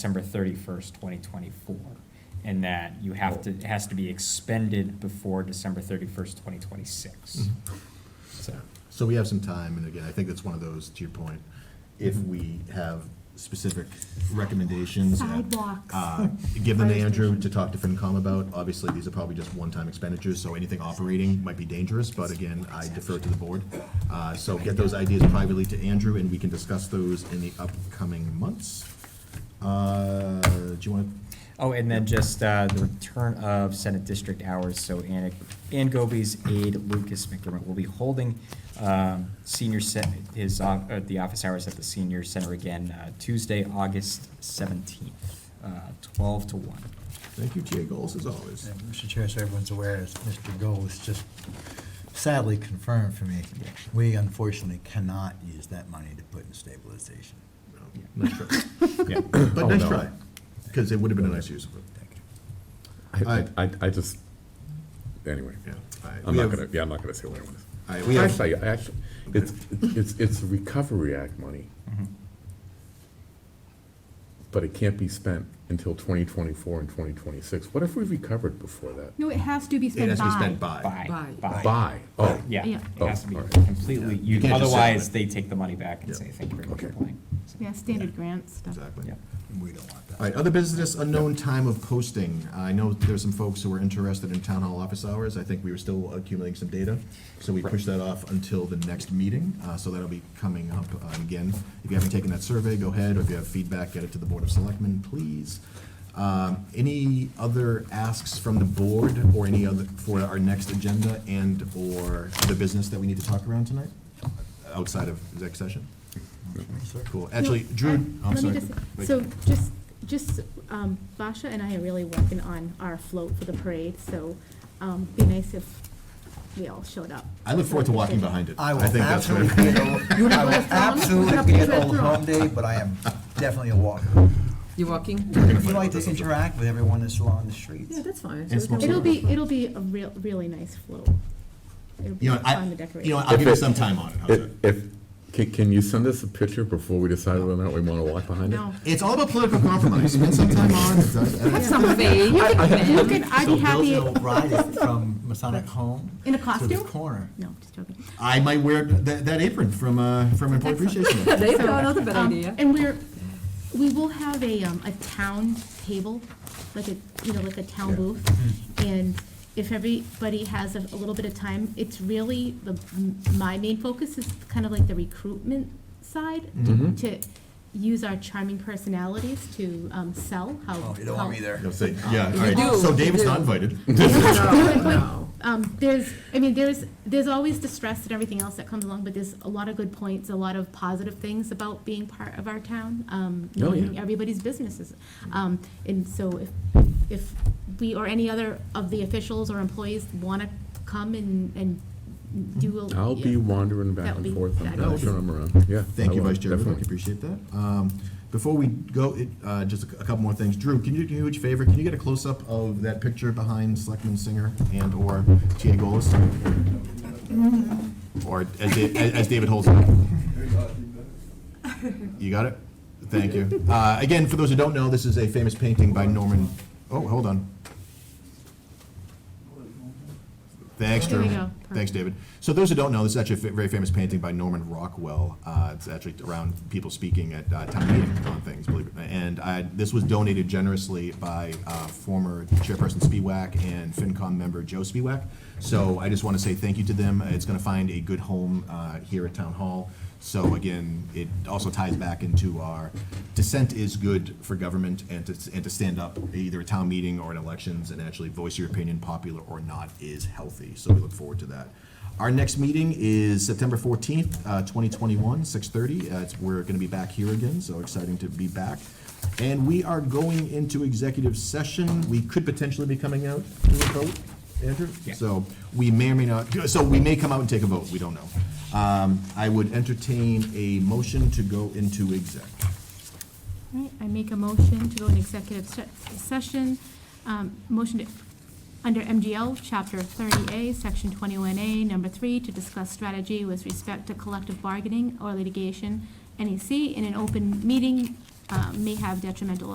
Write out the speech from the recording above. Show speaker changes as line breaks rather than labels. December thirty-first, twenty twenty-four. And that you have to, it has to be expended before December thirty-first, twenty twenty-six. So,
So we have some time, and again, I think that's one of those, to your point, if we have specific recommendations. and,
Sidewalks.
uh, Give them to
Fire
Andrew
station.
to talk to FinCom about. Obviously, these are probably just one-time expenditures, so anything operating might be dangerous, but again, I defer to the board. Uh, So get those ideas privately to Andrew, and we can discuss those in the upcoming months. Uh, Do you want to
oh, and then just, uh, the return of Senate District hours, so Anna, Ann Goby's aide Lucas McDermott will be holding, um, senior sen, his, uh, uh, the office hours at the senior center again, uh, Tuesday, August seventeenth, uh, twelve to one.
Thank you, TA Goals, as always.
Yeah, Mr. Chair, so everyone's aware, as Mr. Gold just sadly confirmed for me, we unfortunately cannot use that money to put in stabilization.
No, Nice try.
Yeah.
Oh,
But nice try, because it would have been a nice use of it.
Thank you.
I-
I, I, I just, anyway,
Yeah. All right,
I'm
we
not
have-
gonna, yeah, I'm not gonna say what I want
All right,
to
we
say.
have-
Actually, I- actually, it's, it's, it's Recovery Act money,
Mm-hmm.
Mhm.
but it can't be spent until twenty twenty-four and twenty twenty-six. What if we recovered before that?
No, it has to be
It
spent
has to be spent
by.
by.
Bye.
Bye.
By, oh,
Yeah,
Yeah.
it has to be
Oh, all right.
completely,
You
you,
can't just sit on
otherwise
it.
they take the money back and
Yeah.
say, thank you very much for
Okay.
playing. So,
Yeah, standard grant stuff.
Exactly.
yeah.
We don't want that.
All right, other business, unknown time of posting. I know there's some folks who were interested in town hall office hours. I think we were still accumulating some data. So we pushed that off until the next meeting, uh, so that'll be coming up uh, again. If you haven't taken that survey, go ahead, or if you have feedback, get it to the Board of Selectmen, please. Um, Any other asks from the board or any other, for our next agenda and/or the business that we need to talk around tonight? Outside of exec session? Cool. Actually,
No,
Drew,
uh,
I'm
let me
sorry.
just-
Wait.
So just, just, um, Basha and I are really working on our float for the parade, so, um, be nice if we all showed up.
I look forward to walking behind it.
I will
think that's what-
absolutely, be at Old- I will absolutely be at Old Home Day, but I am definitely a walker.
You walking?
If you like to interact with everyone that's along the streets.
Yeah, that's fine.
And small
It'll be, it'll be a real, really nice float. It'll be
You know, I,
fun to decorate.
you know, I'll
If
give you
it-
some time on it. How's
if,
that?
if, can, can you send us a picture before we decide whether or not we want to walk behind it?
No.
It's all about political compromise. Spend some time on it.
Have some faith.
You can, you can, I'd
So
be
Bill's
happy,
gonna ride it from Masonic Home.
In a
To
costume?
the corner.
no, just joking.
I might wear that, that apron from, uh, from Employee Appreciation Month.
There you go, another bad
Um,
idea.
And we're, we will have a, um, a town table, like a, you know, like a town booth. And if everybody has a, a little bit of time, it's really, the, my main focus is kind of like the recruitment side. to-
Mhm.
To use our charming personalities to, um, sell how.
Oh, you don't want me
how-
there.
You'll say, yeah, all right.
do,
So
you
David's
do.
not invited.
But- but, Um, there's, I mean, there's, there's always the stress and everything else that comes along, but there's a lot of good points, a lot of positive things about being part of our town. Um,
Oh, yeah.
knowing everybody's businesses. Um, and so if, if we or any other of the officials or employees wanna come and, and do a.
I'll be wandering
That
back
would
and
be
forth. I'm not
fabulous.
sure I'm around, yeah.
Thank
I
you,
will,
Vice Chair. Rubik.
definitely.
Appreciate that. Um, Before we go, it, uh, just a cou- a couple more things. Drew, can you do me a huge favor? Can you get a close-up of that picture behind Selectman Singer and/or TA Golis?
Mm-hmm.
Or as Da- as as David holds it up. You got it? Thank you. Uh, Again, for those who don't know, this is a famous painting by Norman, oh, hold on. Thanks,
There
Drew.
we go.
Thanks, David. So those who don't know, this is actually a fa- very famous painting by Norman Rockwell. Uh, It's actually around people speaking at uh, town meeting on things, believe it. And I- this was donated generously by uh, former Chairperson Spiewak and FinCom member Joe Spiewak. So I just want to say thank you to them. It's going to find a good home uh, here at Town Hall. So again, it also ties back into our dissent is good for government and to, and to stand up either at town meeting or in elections and actually voice your opinion, popular or not, is healthy. So we look forward to that. Our next meeting is September fourteenth, uh, twenty twenty-one, six thirty. Uh, it's, we're gonna be back here again, so exciting to be back. And we are going into executive session. We could potentially be coming out to a vote, Andrew?
Yeah.
So we may or may not, so we may come out and take a vote, we don't know. Um, I would entertain a motion to go into exec.
All right, I make a motion to go in executive se- session, um, motion to, under MGL, Chapter 30A, Section 21A, Number 3, to discuss strategy with respect to collective E bargaining or litigation, NEC, in an open meeting uh, may have detrimental